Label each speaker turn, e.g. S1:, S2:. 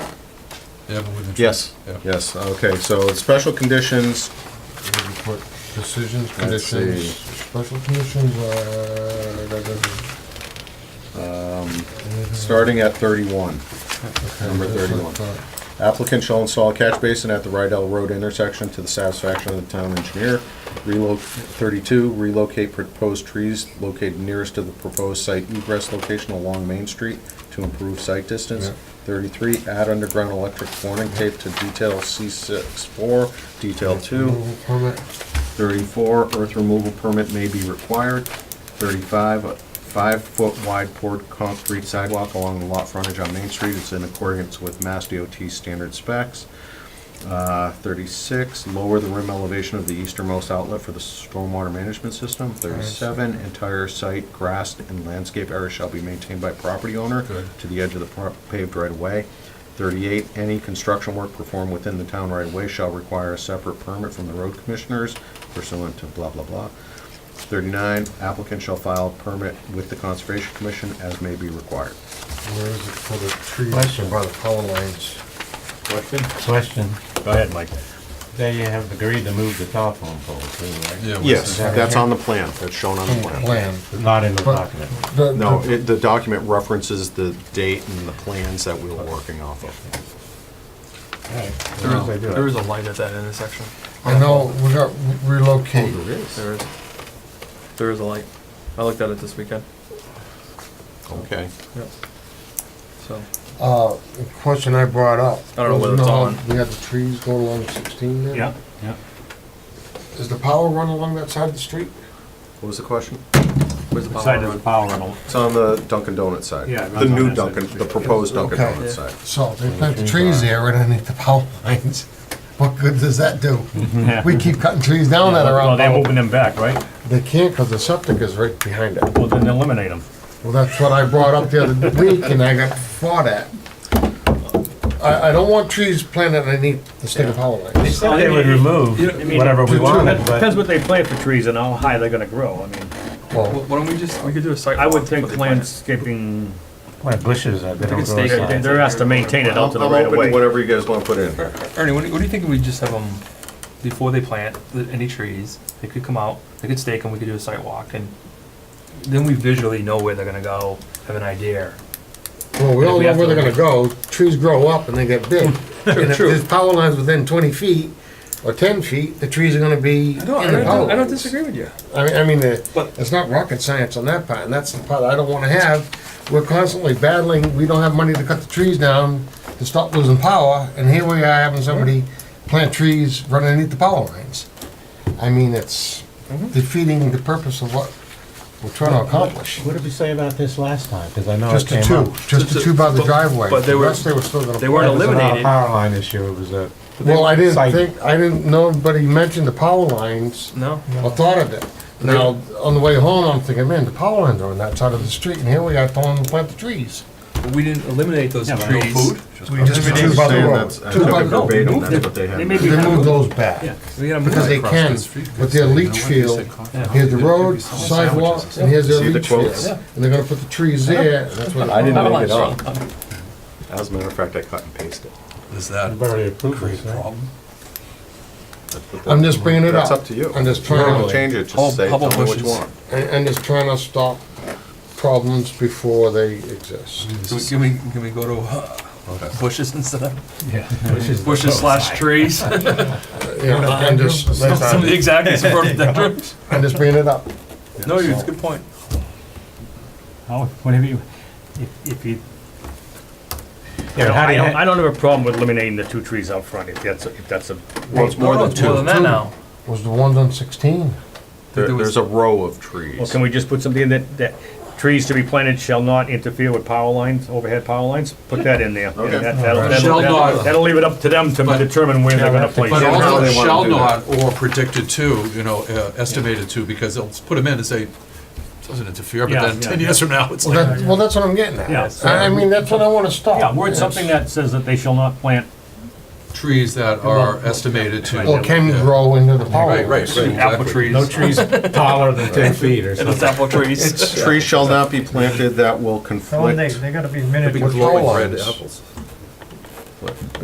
S1: Yeah, but with the.
S2: Yes,
S1: Yeah.
S2: yes, okay, so special conditions,
S3: We Report decisions,
S2: Let's see.
S3: conditions, special conditions, uh, da, da, da. Mm-hmm.
S2: starting at thirty-one.
S3: Okay,
S2: number
S3: that's what I
S2: 31.
S3: thought.
S2: Applicant shall install a catch basin at the Rydell Road intersection to the satisfaction of the town engineer. Relo, thirty-two, relocate proposed trees located nearest to the proposed site egress location along Main Street to improve site distance.
S3: Yeah.
S2: Thirty-three, add underground electric warning tape to detail C six four, detail two.
S3: Removal Permit,
S2: Thirty-four, earth removal permit may be required. Thirty-five, a five-foot wide poured concrete sidewalk along the lot frontage on Main Street is in accordance with Mass DOT standard specs. Uh, Thirty-six, lower the rim elevation of the easternmost outlet for the stormwater management system. Thirty-seven, entire site, grass and landscape area shall be maintained by property owner
S1: Good.
S2: to the edge of the pro- paved right-of-way. Thirty-eight, any construction work performed within the town right-of-way shall require a separate permit from the road commissioners pursuant to blah, blah, blah. Thirty-nine, applicant shall file a permit with the Conservation Commission as may be required.
S3: where is it for the trees?
S4: Question.
S3: By the power lines.
S1: Question?
S4: Question. Go ahead, Mike. They have agreed to move the telephone pole too,
S1: Yeah.
S4: right?
S1: we
S2: Yes,
S1: said-
S2: that's on the plan, that's shown on the plan.
S3: Plan.
S4: Not in the document.
S3: The-
S2: No,
S3: the-
S2: it, the document references the date and the plans that we were working off of.
S5: There
S1: No.
S5: is, there is a light at that intersection.
S3: I know, we got relocate.
S5: There is. There is a light. I looked at it this weekend.
S2: Okay.
S5: Yep. So,
S3: Uh, the question I brought up.
S5: I don't know whether it's
S3: was, no,
S5: on.
S3: We had the trees going along sixteen there.
S4: yeah.
S3: Does the power run along that side of the street?
S2: What was the question?
S5: where's the power
S4: Side of the
S5: run?
S4: power rental.
S2: It's on the Dunkin' Donuts side.
S4: Yeah, it
S2: The
S4: runs on
S2: new
S4: that side.
S2: Dunkin', the proposed Dunkin'
S3: Okay.
S2: Donuts
S5: Yeah.
S2: side.
S3: So they plant the trees there right underneath the power lines. What good does that do?
S2: Mm-hmm.
S4: Yeah.
S3: We keep cutting trees down that are
S4: Well,
S3: around.
S4: they're moving them back, right?
S3: They can't because the septic is right behind it.
S4: Well, then eliminate them.
S3: Well, that's what I brought up the other week and I got fought at. I, I don't want trees planted underneath the state of power lines.
S4: said they would remove whatever we wanted, but. Depends what they plant for trees and how high they're gonna grow, I mean.
S3: Well,
S5: Wh- Why don't we just, we could do a site.
S4: I would
S5: walk
S4: think
S5: with the plan.
S4: landscaping,
S6: Plant bushes, uh, they
S5: think
S6: don't
S5: it's
S6: grow
S5: stake-
S6: inside.
S4: they're asked to maintain it out to the
S2: I'm
S4: right of
S2: open to
S4: way.
S2: whatever you guys wanna put in.
S5: Er, Ernie, what do, you- what do you think if we just have them, before they plant the- any trees, they could come out, they could stake them, we could do a site walk and then we visually know where they're gonna go, have an idea.
S3: well, we all
S5: We
S3: know
S5: have
S3: where
S5: to-
S3: they're gonna go. Trees grow up and they get big. And if
S5: true.
S3: there's power lines within twenty feet or ten feet, the trees are gonna be in
S5: I
S3: the
S5: don't, I
S3: power
S5: don't,
S3: lines.
S5: I don't disagree with you.
S3: I mean, I mean, uh,
S5: But-
S3: it's not rocket science on that part, and that's the part I don't wanna have. We're constantly battling, we don't have money to cut the trees down to stop losing power, and here we are having somebody plant trees running underneath the power lines. I mean, it's
S5: Mm-hmm.
S3: defeating the purpose of what we're trying to accomplish.
S6: What did we say about this last time? Because I know it
S3: Just
S6: came
S3: the
S6: up.
S3: two, just the two by the
S5: But-
S3: driveway.
S5: but they
S3: The
S5: were-
S3: rest they were still gonna.
S5: They weren't
S6: It was not a
S5: eliminated.
S6: power line issue, it was a,
S3: Well, I didn't
S6: Site.
S3: think, I didn't, nobody mentioned the power lines.
S5: No?
S3: I thought of it. Now, on the way home, I'm thinking, man, the power lines are on that side of the street, and here we are telling them to plant the trees.
S5: But We didn't eliminate those
S4: Yeah, but no
S5: trees.
S3: We just
S2: I'm
S3: two by the
S2: saying
S3: road.
S2: that's- I
S3: Two
S2: took
S3: by
S2: it
S3: the road.
S2: verbatim, that's what they had.
S4: They may
S3: They
S4: be kind
S3: move
S4: of-
S3: those back,
S5: Yeah, we gotta move
S3: because
S5: it
S3: they
S5: across
S3: can,
S5: the street.
S3: with their leach field, here's the road,
S1: some
S3: sidewalk,
S1: sandwiches.
S3: and here's their
S2: See the
S3: leach field.
S2: quotes?
S3: And they're gonna put the trees there, and that's where
S2: I
S3: the,
S2: didn't
S5: Power
S2: make it
S5: lines.
S2: up. As a matter of fact, I cut and pasted.
S1: Is that
S6: We've already approved
S1: create
S6: this,
S1: a
S6: right?
S1: problem?
S2: That's what the-
S3: I'm just bringing it up.
S2: That's up to you.
S3: I'm just
S2: If you wanna
S3: trying to,
S2: Change it, just
S5: Hub-
S2: say, tell
S5: hubble
S2: me what you
S5: bushes.
S2: want.
S3: and, and just trying to stop problems before they exist.
S5: Can we, can we, can we go to
S2: Oh,
S5: uh, bushes instead of bushes slash trees? Some
S3: You know, and just,
S5: of the exact, some rhododendrons.
S3: I'm just bringing it up.
S5: No, you- it's a good point.
S6: oh, whatever you, if, if you.
S4: I don't-
S6: how do
S4: I
S6: you-
S4: don't, I don't have a problem with eliminating the two trees out front, if that's, if that's a,
S2: Well, it's more
S5: No,
S2: than
S5: it's More
S2: two.
S5: than that now.
S3: Was the ones on sixteen.
S2: There-
S5: There was-
S2: There's a row of
S4: well,
S2: trees.
S4: can we just put something in that, that trees to be planted shall not interfere with power lines, overhead power lines? Put that in there. and
S2: Okay.
S4: that- that'll- that'll-
S7: Shall
S4: that'll-
S7: not.
S4: That'll leave it up to them to
S7: But-
S4: determine where they're gonna place
S7: But
S4: it.
S2: Generally,
S7: also
S2: they wanna
S7: shall
S2: do
S7: not or predicted to, you know, uh, estimated to, because they'll put them in and say, doesn't interfere, but
S4: Yeah,
S7: then
S4: yeah,
S7: ten
S4: yeah.
S7: years from now, it's
S3: Well,
S7: like,
S3: that, well, that's what I'm getting at.
S4: Yeah.
S3: I, I mean, that's what I want to stop.
S4: Yeah, word something that says that they shall not plant
S7: trees that are estimated to.
S3: Or can
S7: Yeah.
S3: grow into the power.
S7: Right, right, right,
S5: Apple
S7: exactly.
S5: trees.
S6: No trees taller than ten feet or
S5: And it's
S6: something.
S5: apple trees.
S2: Trees shall not be planted that will
S6: Oh, and they,
S2: conflict.
S6: they gotta be
S7: Could
S6: minute
S7: be
S3: With
S7: glowing
S3: power
S7: red
S3: lines.
S7: apples.